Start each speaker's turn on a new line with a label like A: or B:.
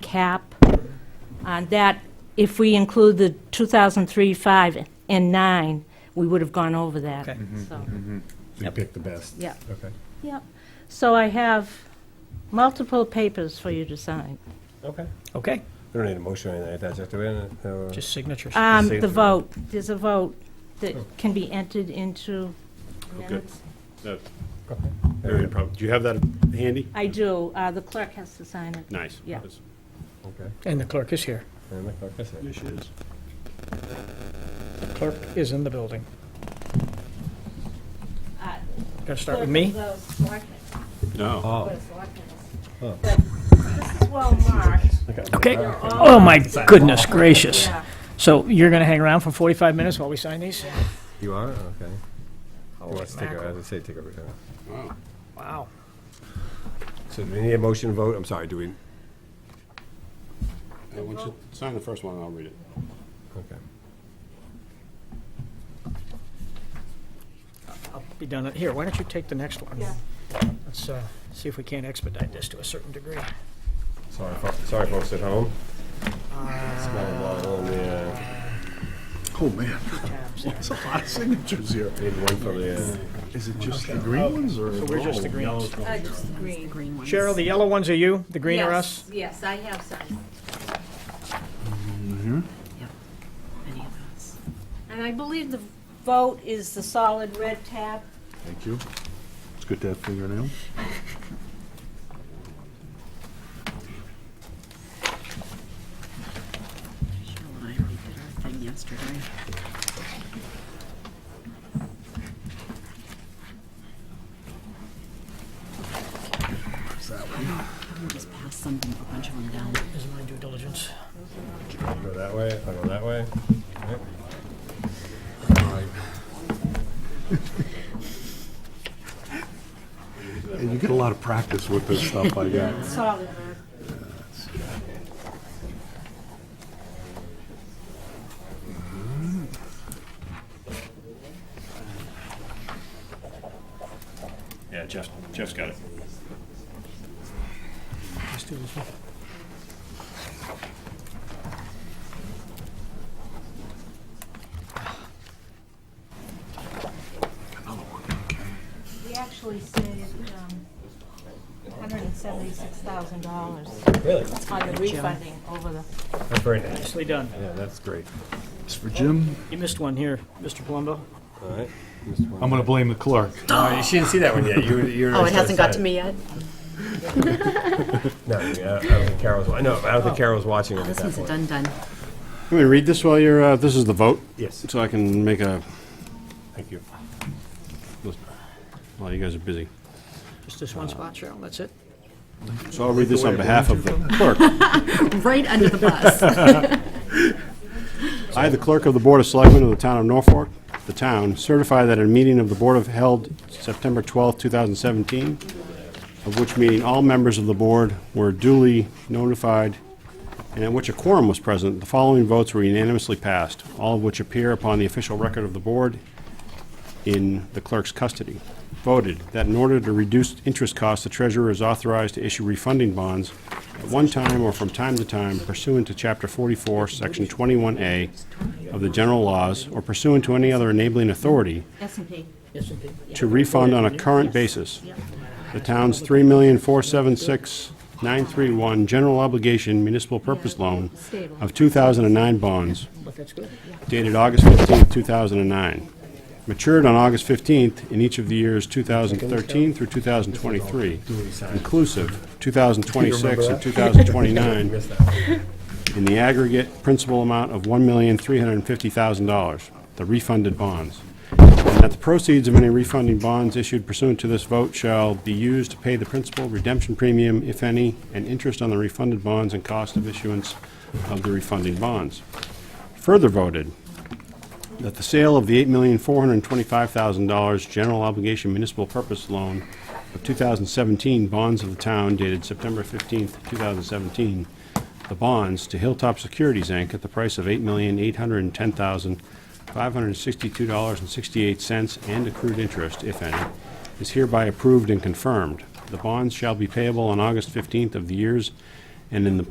A: cap on that, if we include the 2003, 5, and 9, we would have gone over that,
B: Okay. Mm-hmm.
A: so,
C: You pick the best.
A: yeah.
C: Okay.
A: Yep. So I have multiple papers for you to sign.
D: Okay.
B: Okay,
D: We don't need a motion or anything like that, just do it. uh,
B: just signatures.
A: Um,
D: Save
A: the
D: the-
A: vote, there's a vote that
B: Oh.
A: can be entered into
E: Okay.
A: minutes.
E: That-
D: okay.
E: very prob- Do you have that handy?
A: I do, uh, the clerk has to sign it.
E: Nice.
A: Yeah.
E: That's-
D: Okay.
B: And the clerk is here.
D: And the clerk is here.
E: There she is.
B: Clerk is in the building.
A: Uh,
B: Gonna start with me?
A: Clerk of the Selectmen,
F: Uh,
E: No.
D: Oh,
A: Board of Selectmen.
D: Oh.
A: But this is well marked.
B: Okay.
A: They're all-
B: Oh, my goodness gracious.
A: Yeah.
B: So you're gonna hang around for 45 minutes while we sign these?
D: you are? Okay.
G: Oh,
D: Well,
B: Holy
D: Let's take a,
B: mackerel.
D: as I say, take a, uh,
E: Wow.
B: Wow.
D: so do we need a motion vote? I'm sorry, do we?
E: Hey, why don't you sign the first one, and I'll read it.
D: Okay.
B: I'll be done. at- Here, why don't you take the next one?
A: Yeah.
B: Let's uh, see if we can't expedite this to a certain degree.
D: Sorry, fo- sorry folks at home. Smelling water on the, uh,
H: Oh, man,
B: Tabs there.
H: it's a lot of signatures here.
D: need one for the, uh,
H: Is it just the green ones or?
B: So we're just
F: Oh,
B: the greens.
A: Uh, just the green.
G: green ones.
B: Cheryl, the yellow ones are you, the green are us?
A: Yes, I have signed.
G: Any of those.
A: And I believe the vote is the solid red tab.
H: Thank you. It's good to have fingernails.
G: Cheryl and I already did our thing yesterday. I'm gonna just pass some, a bunch of them down.
B: Is my due diligence.
D: go that way, if I go that way. Yep.
H: And you get a lot of practice with this stuff, I guess.
A: Solid red.
E: Yeah, Jeff, Jeff's got it.
B: Let's do this one.
A: We actually saved um, $176,000
D: Really?
A: on the refunding over the,
D: That's very nice.
B: Nicely done.
D: Yeah, that's great.
H: It's for Jim.
B: You missed one here, Mr. Palumbo.
D: All right. Just one.
H: I'm gonna blame the clerk.
D: Oh, She didn't see that one yet. You, were- you were
G: Oh, it
D: just
G: hasn't got
D: outside.
G: to me yet?
D: No, I mean, I I don't think Carol was, wa- no, I don't think Carol was watching it at
G: Oh. This
D: that
G: one's a
D: point.
G: done done.
F: Let me read this while you're, uh, this is the vote,
D: Yes,
F: so I can make a,
D: thank you.
F: while you guys are busy.
B: Just this one spot, Cheryl, that's it?
F: So I'll read this on behalf of the clerk.
G: Right under the bus.
F: I, the clerk of the Board of Selectmen of the Town of Norfolk, the town, certify that a meeting of the Board of held September 12, 2017, of which meeting all members of the board were duly notified and at which a quorum was present, the following votes were unanimously passed, all of which appear upon the official record of the board in the clerk's custody, voted that in order to reduce interest costs, the treasurer is authorized to issue refunding bonds at one time or from time to time pursuant to Chapter 44, Section 21A of the general laws, or pursuant to any other enabling authority
G: S and P.
B: Yes, indeed.
F: to refund on a current basis. The town's three million, four, seven, six, nine, three, one general obligation municipal purpose loan of two thousand and nine bonds
B: But that's good.
F: dated August fifteenth, two thousand and nine. Matured on August fifteenth in each of the years two thousand thirteen through two thousand twenty-three, inclusive, two thousand twenty-six and two thousand twenty-nine,
D: Missed that one.
F: in the aggregate principal amount of $1,350,000, the refunded bonds. And that the proceeds of any refunding bonds issued pursuant to this vote shall be used to pay the principal, redemption premium, if any, and interest on the refunded bonds and cost of issuance of the refunding bonds. Further voted, that the sale of the $8,425,000 general obligation municipal purpose loan of 2017 bonds of the town dated September 15th, 2017, the bonds to Hilltop Securities, Inc., at the price of $8,810,562.68 and accrued interest, if any, is hereby approved and confirmed. The bonds shall be payable on August 15th of the years and in the